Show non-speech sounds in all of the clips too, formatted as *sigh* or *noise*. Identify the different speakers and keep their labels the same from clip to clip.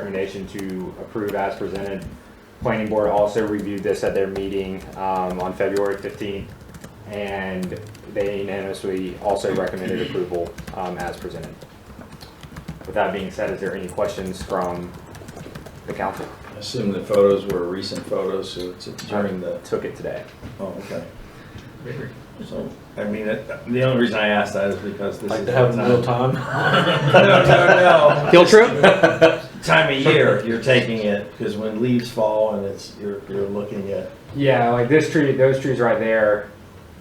Speaker 1: recommendation to approve as presented. Planning board also reviewed this at their meeting, um, on February fifteenth, and they unanimously also recommended approval, um, as presented. With that being said, is there any questions from the council?
Speaker 2: I assume the photos were recent photos, so it's during the,
Speaker 1: Took it today.
Speaker 2: oh, okay. So, I mean, it- the only reason I asked that is because this is.
Speaker 3: Like to have
Speaker 2: the
Speaker 3: a real time?
Speaker 2: *laughs* No, no, no.
Speaker 1: Field trip?
Speaker 2: *laughs* Time of year, you're taking it, because when leaves fall and it's, you're, you're looking at,
Speaker 1: Yeah, like this tree, those trees right there,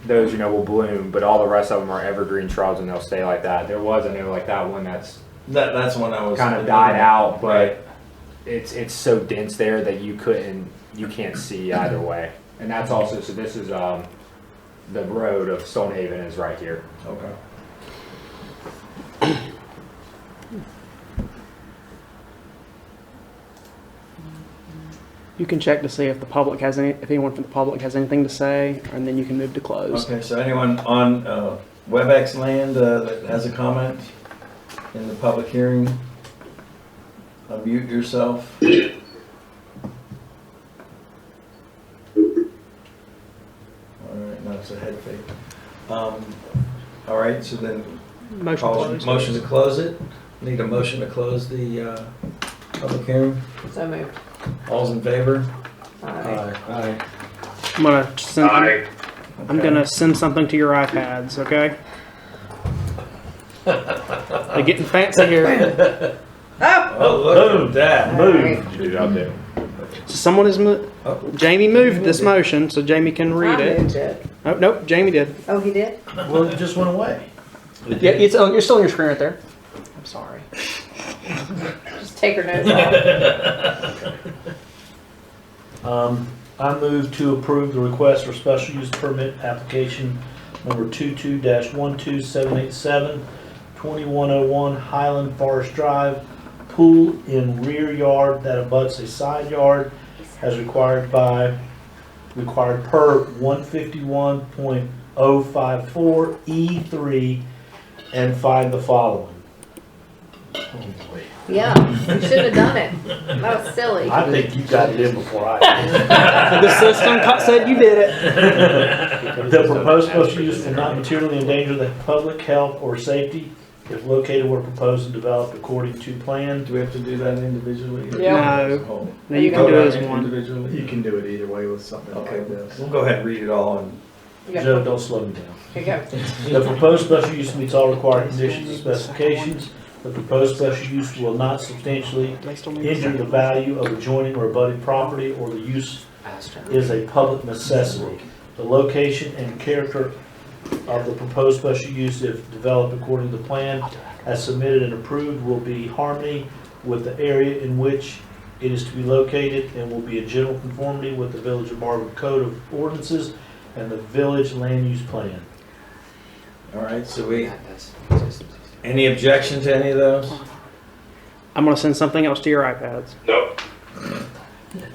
Speaker 1: those, you know, will bloom, but all the rest of them are evergreen shrubs and they'll stay like that. There was, I know, like that one that's
Speaker 2: that, that's when I was.
Speaker 1: kind of died out,
Speaker 2: Right.
Speaker 1: but it's, it's so dense there that you couldn't, you can't see either way. And that's also, so this is, um, the road of Stonehaven is right here.
Speaker 2: Okay.
Speaker 4: You can check to see if the public has any, if anyone from the public has anything to say, and then you can move to close.
Speaker 2: Okay, so anyone on uh, WebEx land uh, that has a comment in the public hearing, unmute yourself. All right, now it's a head fake. Um, All right, so then,
Speaker 4: Motion
Speaker 2: call-
Speaker 4: closed.
Speaker 2: motion to close it? Need a motion to close the uh, public hearing?
Speaker 5: So moved.
Speaker 2: All's in favor? Uh,
Speaker 5: Aye.
Speaker 4: I'm gonna send. I'm gonna send something to your iPads. Okay. They're getting fancy here.
Speaker 2: Oh, look at that.
Speaker 5: Move.
Speaker 1: Dude, out there.
Speaker 4: So someone is mo-
Speaker 2: Oh,
Speaker 4: Jamie moved this motion, so Jamie can read
Speaker 5: I
Speaker 4: it.
Speaker 5: moved it.
Speaker 4: Oh nope, Jamie did.
Speaker 5: Oh, he did?
Speaker 2: Well, it just went away.
Speaker 4: Yeah, it's on. You're still on your screen right there.
Speaker 5: I'm sorry. Just take her notes
Speaker 4: *laughs*
Speaker 5: off.
Speaker 6: Um, I move to approve the request for special use permit application number 22-12787, 2101 Highland Forest Drive, pool in rear yard that abuts a side yard as required by, required per 151.054E3, E and find the following.
Speaker 5: Yeah, you shouldn't have done it. That was silly.
Speaker 6: I think you got it in before I did.
Speaker 4: The system co- said you did it.
Speaker 6: The proposed special use will not materially endanger the public health or safety if located where proposed and developed according to plan.
Speaker 2: Do we have to do that individually? or
Speaker 5: Yeah.
Speaker 4: No,
Speaker 2: Oh.
Speaker 4: no, you can do it as one.
Speaker 2: Individually?
Speaker 3: You can do it either way with something
Speaker 2: Okay,
Speaker 3: like this.
Speaker 2: we'll go ahead and read it all and.
Speaker 5: You got-
Speaker 6: Joe, don't slow me down.
Speaker 5: you got-
Speaker 6: The proposed special use meets all required conditions and specifications. The proposed special use will not substantially
Speaker 4: They still need
Speaker 6: injure the value of adjoining or abutting property or the use is a public necessity. The location and character of the proposed special use, if developed according to plan, as submitted and approved, will be harmony with the area in which it is to be located and will be in general conformity with the Village of Marvin Code of Ordinances and the Village Land Use Plan.
Speaker 2: All right, so we, any objection to any of those?
Speaker 4: I'm gonna send something else to your iPads.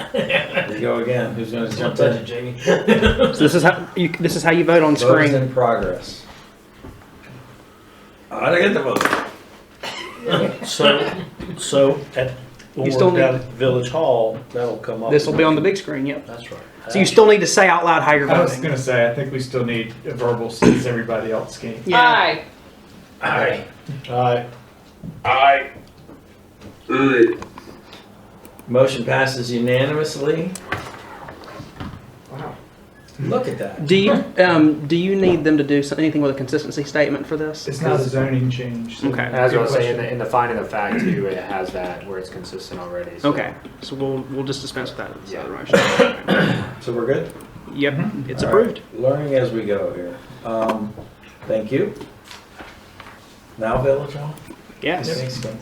Speaker 2: There you go again, who's gonna jump in?
Speaker 3: Jamie.
Speaker 4: So this is how you, this is how you vote on
Speaker 2: Vote is
Speaker 4: screen.
Speaker 2: in progress. I don't get the vote.
Speaker 6: So, so at, when
Speaker 4: You still
Speaker 6: we're down at Village Hall, that'll come up.
Speaker 4: Oh. This will be on the big screen. Yep.
Speaker 6: That's right.
Speaker 4: So you still need to say out loud how you're
Speaker 3: I was
Speaker 4: voting.
Speaker 3: gonna say, I think we still need a verbal since everybody else came.
Speaker 4: Yeah.
Speaker 5: Aye.
Speaker 2: Aye.
Speaker 6: Aye.
Speaker 2: Motion passes unanimously.
Speaker 5: Wow.
Speaker 2: Look at that.
Speaker 4: Do you um, do you need them to do some, anything with a consistency statement for this?
Speaker 3: It's not a zoning change. so-
Speaker 4: Okay.
Speaker 1: As I was
Speaker 3: Good
Speaker 1: saying, in the,
Speaker 3: question.
Speaker 1: in the finding of fact too, it has that where it's consistent already. so-
Speaker 4: Okay. So we'll we'll just dispense with that.
Speaker 1: Yeah.
Speaker 4: other motion.
Speaker 2: So we're good?
Speaker 4: Yep. It's
Speaker 2: All
Speaker 4: approved.
Speaker 2: right, Learning as we go here. Um, thank you. Now Village Hall?
Speaker 4: Yes.
Speaker 2: Thanks, Ken.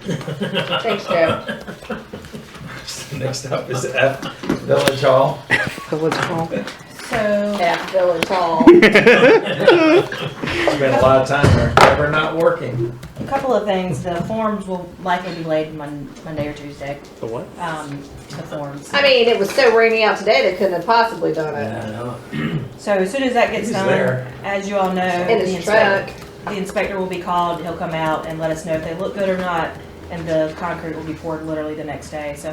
Speaker 5: Thanks, Joe.
Speaker 2: *laughs* Next up is F, Village Hall.
Speaker 4: So let's call.
Speaker 7: So,
Speaker 5: At Village Hall.
Speaker 2: Spent a lot of time there, never not working.
Speaker 7: a couple of things, the forms will likely be laid Mon- Monday or Tuesday,
Speaker 4: The what?
Speaker 7: um, the forms.
Speaker 5: I mean, it was so rainy out today, they couldn't have possibly done it.
Speaker 7: So as soon as that gets
Speaker 2: He's
Speaker 7: done,
Speaker 2: there.
Speaker 7: as you all know,
Speaker 5: In
Speaker 7: the
Speaker 5: his
Speaker 7: inspector,
Speaker 5: truck.
Speaker 7: the inspector will be called, he'll come out and let us know if they look good or not. and the concrete will be poured literally the next day, so